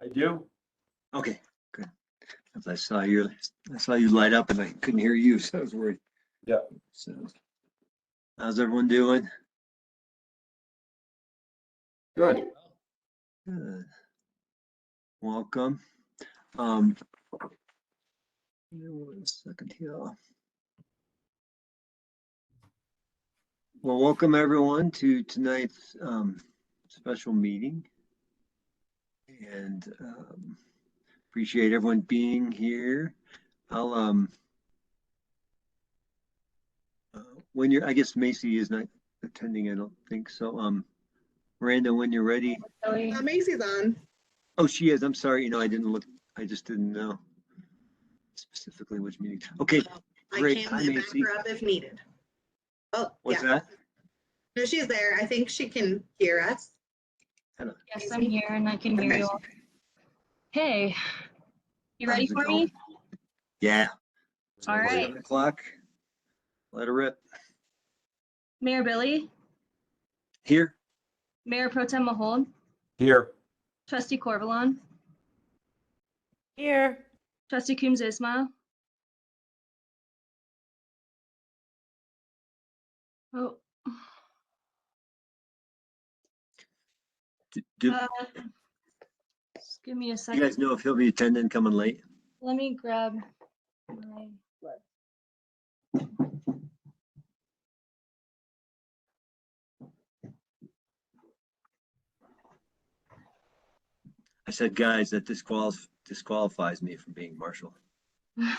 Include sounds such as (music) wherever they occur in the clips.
I do. Okay, good. 'Cause I saw your, I saw you light up and I couldn't hear you, so I was worried. Yeah. So, how's everyone doing? Good. Good. Welcome. Um. give me One second here. Well, welcome everyone to tonight's um special meeting. And um appreciate everyone being here. I'll um. uh, When you're, I guess Macy is not attending, I don't think so. Um, Miranda, when you're ready, Uh, Macy's on. Oh, she is. I'm sorry. You know, I didn't look, I just didn't know specifically which meeting. Okay, I Great. can Hi, back Macy. her up if needed. Oh, what's yeah. that? No, she's there. I think she can hear us. Yes, I'm here and I can hear Okay. you all. Hey, you ready How's it for going? me? Yeah. All Eleven right. O'clock. Let her rip. Mayor Billy, Here. Mayor Pro Tem Mahold, Here. Trustee Corvalon, Here. Trustee Coombs Ismail. Oh, D- Do uh, just give me a you guys second. know if he'll be attending coming late? Let me grab my. I said, guys, that disqualif- disqualifies me from being marshal. (laughs)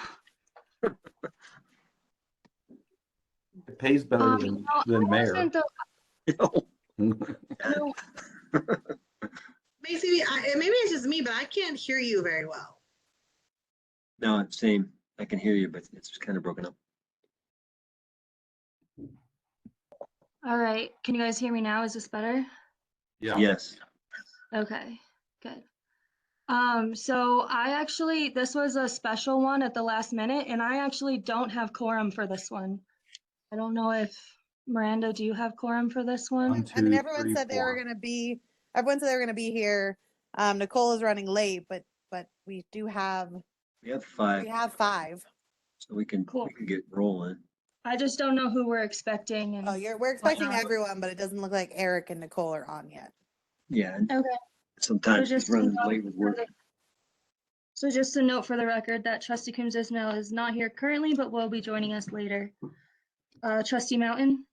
It pays better Um, than, no, I than mayor. wasn't the- no, Macy, I, and maybe it's just me, but I can't hear you very well. No, same. I can hear you, but it's kind of broken up. All right, can you guys hear me now? Is this better? Yeah. Yes. Okay, good. Um, so I actually, this was a special one at the last minute, and I actually don't have quorum for this one. I don't know if, Miranda, do you have quorum for this One, one? I mean, two, everyone three, said they were four. gonna be, everyone said they were gonna be here. Um, Nicole is running late, but, but we do have, We have five, we have five. so we can, Cool. we can get rolling. I just don't know who we're expecting Oh, and, you're, we're expecting not? everyone, but it doesn't look like Eric and Nicole are on yet. Yeah. and Okay. Sometimes just it's a running note late with for work. the- so just a note for the record that trustee Coombs Ismail is not here currently, but will be joining us later. Uh, trustee Mountain,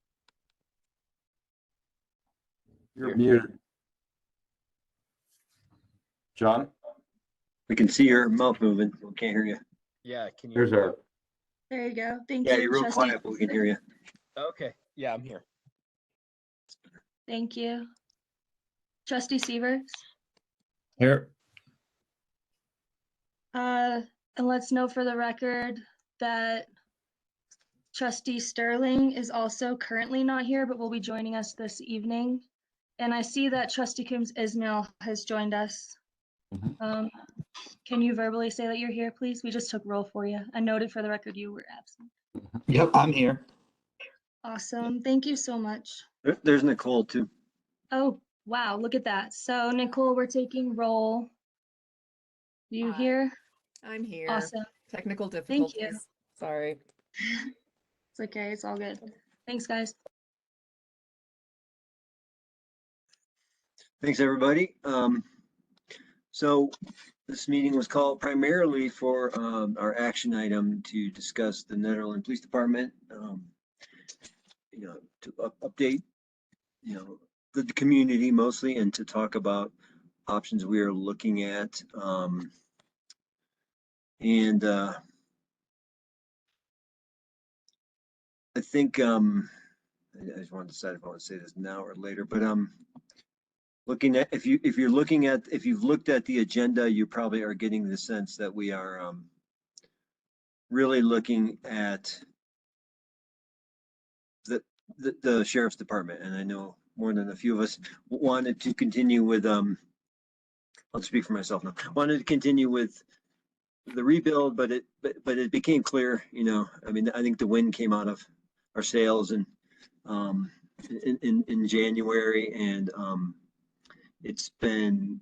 You're muted. John, We can see your mouth moving. We can't hear you. Yeah, can you? there's our, there you go. Thank you. Yeah, you're real Trustee quiet, but we can hear you. Okay, yeah, I'm here. Thank you. Trustee Severs? Here. Uh, and let's know for the record that trustee Sterling is also currently not here, but will be joining us this evening. And I see that trustee Coombs Ismail has joined us. Mhm. Um, can you verbally say that you're here, please? We just took roll for you. I noted for the record you were absent. Yep, I'm here. Awesome. Thank you so much. There- There's Nicole too. Oh, wow, look at that. So Nicole, we're taking roll. You Aye. here? I'm here. Awesome. Technical you. difficulties. Sorry. It's okay, it's all good. Thanks, guys. Thanks, everybody. Um, so this meeting was called primarily for, um, our action item to discuss the Netherland Police Department. um, You know, to up- update, you know, the, the community mostly and to talk about options we are looking at. Um, and, uh, I think, um, I I just want to decide if I want to say this now or later, but, um, looking at, if you, if you're looking at, if you've looked at the agenda, you probably are getting the sense that we are um, really looking at the, the- the sheriff's department, and I know more than a few of us w- wanted to continue with, um, I'll speak for myself now, wanted to continue with the rebuild, but it, but, but it became clear, you know, I mean, I think the wind came out of our sails and um, in, in, in January and um, it's been